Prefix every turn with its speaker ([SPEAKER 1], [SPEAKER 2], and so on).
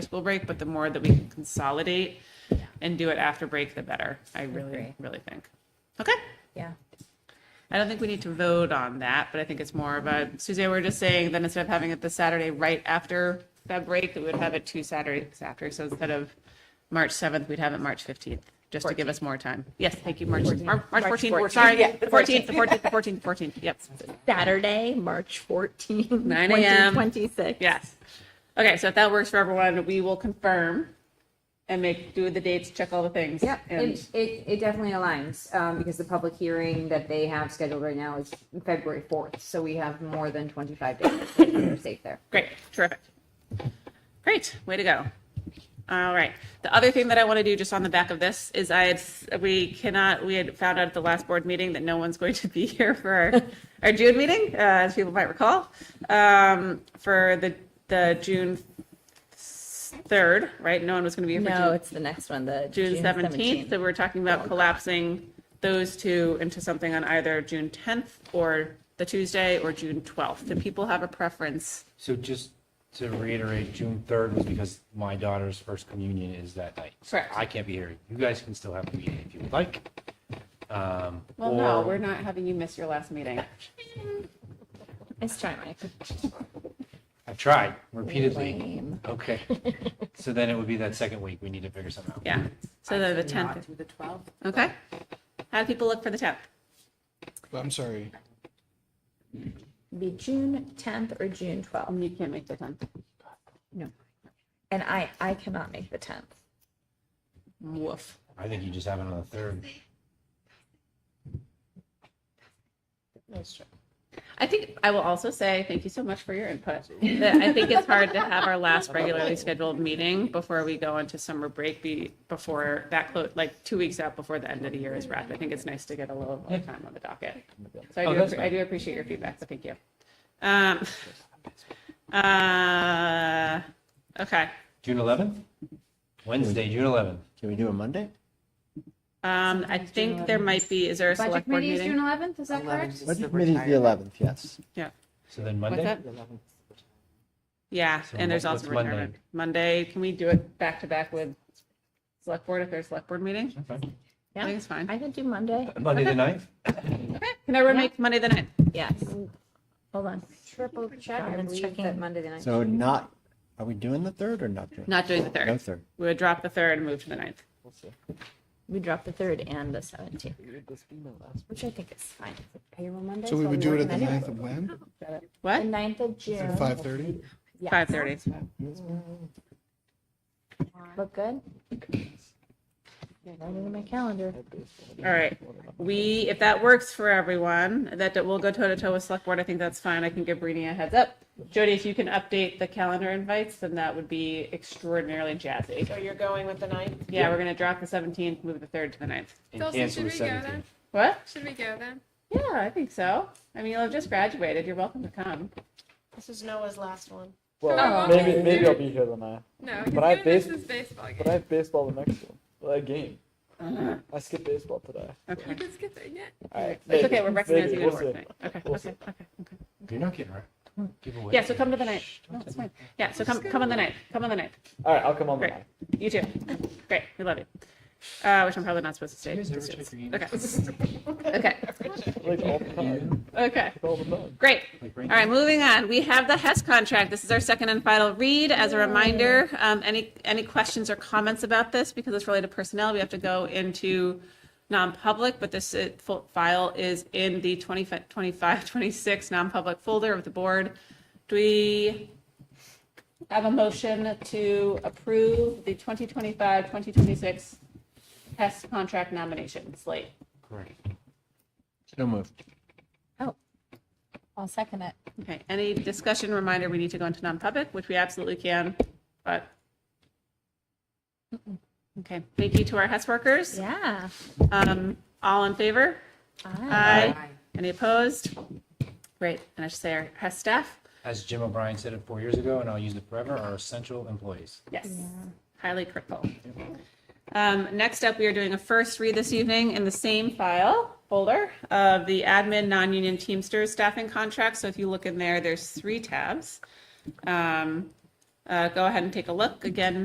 [SPEAKER 1] school break, but the more that we can consolidate and do it after break, the better. I really,
[SPEAKER 2] agree.
[SPEAKER 1] really think. Okay.
[SPEAKER 2] Yeah.
[SPEAKER 1] I don't think we need to vote on that, but I think it's more of a, Suzanne, we we're just saying that instead of having it the Saturday right after that break, that we would have it two Saturdays after. So instead of March 7th, we'd have it March 15th, just to give us more time. Yes, thank you, March, Mar- March 14th, we're sorry,
[SPEAKER 2] Yeah,
[SPEAKER 1] the 14th, the 14th, the 14th, 14th, yep.
[SPEAKER 2] Saturday, March 14,
[SPEAKER 1] 9 a.m..
[SPEAKER 2] 2026.
[SPEAKER 1] Yes. Okay, so if that works for everyone, we will confirm and make, do the dates, check all the things.
[SPEAKER 3] Yeah,
[SPEAKER 1] And
[SPEAKER 3] it, it, it definitely aligns, um, because the public hearing that they have scheduled right now is February fourth, so we have more than twenty-five days. We're safe there.
[SPEAKER 1] Great, terrific. Great, way to go. All right. The other thing that I want to do just on the back of this is I had, we cannot, we had found out at the last board meeting that no one's going to be here for our, our June meeting, uh, as people might recall, um, for the, the June 3rd, right? No one was going to be here for June.
[SPEAKER 2] No, it's the next one, the
[SPEAKER 1] June seventeenth, so we're talking about collapsing those two into something on either June tenth or the Tuesday or June twelfth. Do people have a preference?
[SPEAKER 4] So just to reiterate, June 3rd was because my daughter's first communion is that night. So
[SPEAKER 1] Correct.
[SPEAKER 4] I can't be here. You guys can still have a meeting if you would like. Um,
[SPEAKER 1] Well, no,
[SPEAKER 4] or-
[SPEAKER 1] we're not having you miss your last meeting.
[SPEAKER 2] It's try Mike.
[SPEAKER 4] I've tried repeatedly.
[SPEAKER 2] Lame.
[SPEAKER 4] Okay. So then it would be that second week. We need to figure something out.
[SPEAKER 1] Yeah, so then the tenth,
[SPEAKER 5] to the 12th.
[SPEAKER 1] okay? How do people look for the tenth?
[SPEAKER 6] I'm sorry.
[SPEAKER 2] Be June 10th or June 12th.
[SPEAKER 1] Um, You can't make the tenth.
[SPEAKER 2] And I, I cannot make the 10th.
[SPEAKER 1] Woof.
[SPEAKER 4] I think you just have it on the 3rd.
[SPEAKER 1] I think I will also say thank you so much for your input. That I think it's hard to have our last regularly scheduled meeting before we go into summer break be before that close like two weeks out before the end of the year is wrapped. I think it's nice to get a little more time on the docket. So I
[SPEAKER 4] Oh,
[SPEAKER 1] do
[SPEAKER 4] that's
[SPEAKER 1] appre- I do appreciate your feedback. So thank you. Um, uh, okay.
[SPEAKER 4] June 11th? Wednesday, June 11th.
[SPEAKER 7] Can we do a Monday?
[SPEAKER 1] Um, I think there might be. Is there a
[SPEAKER 3] Budget
[SPEAKER 1] select board
[SPEAKER 3] committee is June
[SPEAKER 1] meeting?
[SPEAKER 3] eleventh, is that correct?
[SPEAKER 7] Budget committee is the eleventh, yes.
[SPEAKER 1] Yeah.
[SPEAKER 4] So then
[SPEAKER 1] What's
[SPEAKER 4] Monday?
[SPEAKER 1] that? Yeah,
[SPEAKER 4] So
[SPEAKER 1] and there's
[SPEAKER 4] what-
[SPEAKER 1] also
[SPEAKER 4] what's Monday?
[SPEAKER 1] retirement. Monday, can we do it back to back with select board if there's select board meeting?
[SPEAKER 4] Okay.
[SPEAKER 1] I think it's fine.
[SPEAKER 2] I could do Monday.
[SPEAKER 4] Monday the 9th?
[SPEAKER 1] Okay, can everyone make Monday the night?
[SPEAKER 2] Yes. Hold on.
[SPEAKER 3] Triple check, I
[SPEAKER 2] Donovan's
[SPEAKER 3] believe
[SPEAKER 2] checking.
[SPEAKER 3] that Monday the ninth.
[SPEAKER 7] So not, are we doing the third or not doing?
[SPEAKER 1] Not doing the
[SPEAKER 7] No
[SPEAKER 1] third.
[SPEAKER 7] third.
[SPEAKER 1] We would drop the third and move to the ninth.
[SPEAKER 2] We dropped the 3rd and the 17th, which I think is fine.
[SPEAKER 3] Payroll Monday.
[SPEAKER 6] So we would
[SPEAKER 3] I'll
[SPEAKER 6] do
[SPEAKER 3] be
[SPEAKER 6] it at the
[SPEAKER 3] working
[SPEAKER 6] ninth of when?
[SPEAKER 2] The
[SPEAKER 1] What?
[SPEAKER 2] 9th of
[SPEAKER 6] At
[SPEAKER 2] June.
[SPEAKER 6] five thirty?
[SPEAKER 3] Yeah.
[SPEAKER 1] Five thirty.
[SPEAKER 2] Look good? Right into my calendar.
[SPEAKER 1] All right. We, if that works for everyone, that that we'll go toe to toe with select board. I think that's fine. I can give Brittany a heads up. Jody, if you can update the calendar invites, then that would be extraordinarily jazzy.
[SPEAKER 5] So you're going with the ninth?
[SPEAKER 1] Yeah, we're gonna drop the seventeenth, move the third to the ninth.
[SPEAKER 4] And
[SPEAKER 8] Dulcie,
[SPEAKER 4] cancel the
[SPEAKER 8] should we go
[SPEAKER 4] 17th.
[SPEAKER 8] then?
[SPEAKER 1] What?
[SPEAKER 8] Should we go then?
[SPEAKER 1] Yeah, I think so. I mean, you'll have just graduated. You're welcome to come.
[SPEAKER 5] This is Noah's last one.
[SPEAKER 8] Oh.
[SPEAKER 9] Well, maybe maybe I'll be here the ninth,
[SPEAKER 8] No, because
[SPEAKER 9] But I
[SPEAKER 8] your next
[SPEAKER 9] bas-
[SPEAKER 8] is baseball
[SPEAKER 9] but I
[SPEAKER 8] game.
[SPEAKER 9] have baseball the next one. Well, that game. I skipped baseball today.
[SPEAKER 1] Okay.
[SPEAKER 8] You can skip it, yeah.
[SPEAKER 9] All right.
[SPEAKER 1] It's
[SPEAKER 9] maybe,
[SPEAKER 1] okay. We're
[SPEAKER 9] maybe,
[SPEAKER 1] recognizing you at
[SPEAKER 9] we'll
[SPEAKER 1] work
[SPEAKER 9] see.
[SPEAKER 1] night. Okay,
[SPEAKER 9] We'll
[SPEAKER 1] okay,
[SPEAKER 9] see.
[SPEAKER 1] okay.
[SPEAKER 4] You're not getting right. Give away.
[SPEAKER 1] Yeah, so come to the night. No, it's fine. Yeah, so come, come on the night. Come on the night.
[SPEAKER 9] All right, I'll come on the
[SPEAKER 1] Great.
[SPEAKER 9] ninth.
[SPEAKER 1] You too. Great. We love you. Uh, which I'm probably not supposed to say.
[SPEAKER 4] You guys
[SPEAKER 1] to
[SPEAKER 4] ever
[SPEAKER 1] students.
[SPEAKER 4] check your
[SPEAKER 1] Okay. Okay.
[SPEAKER 9] Like all the time.
[SPEAKER 1] Okay.
[SPEAKER 9] All the time.
[SPEAKER 1] Great.
[SPEAKER 4] Like
[SPEAKER 1] All
[SPEAKER 4] right
[SPEAKER 1] right, moving on. We have the Hess contract. This is our second and final read. As a reminder, um, any, any questions or comments about this? Because it's related to personnel, we have to go into non-public, but this uh, fo- file is in the 25, 25, 26 non-public folder of the board. Do we have a motion to approve the 2025, 2026 Hess contract nomination slate?
[SPEAKER 4] Correct.
[SPEAKER 7] So moved.
[SPEAKER 2] I'll second it.
[SPEAKER 1] Okay, any discussion reminder, we need to go into non-public, which we absolutely can, but. Okay, thank you to our HES workers.
[SPEAKER 2] Yeah.
[SPEAKER 1] Um, all in favor?
[SPEAKER 2] Aye.
[SPEAKER 1] Aye. Any opposed? Great, and I should say our HES staff,
[SPEAKER 4] As Jim O'Brien said it four years ago, and I'll use it forever, are essential employees.
[SPEAKER 1] yes, highly critical. Um, next up, we are doing a first read this evening in the same file folder of the admin non-union Teamsters staffing contract. So if you look in there, there's three tabs. Um, uh, go ahead and take a look. Again,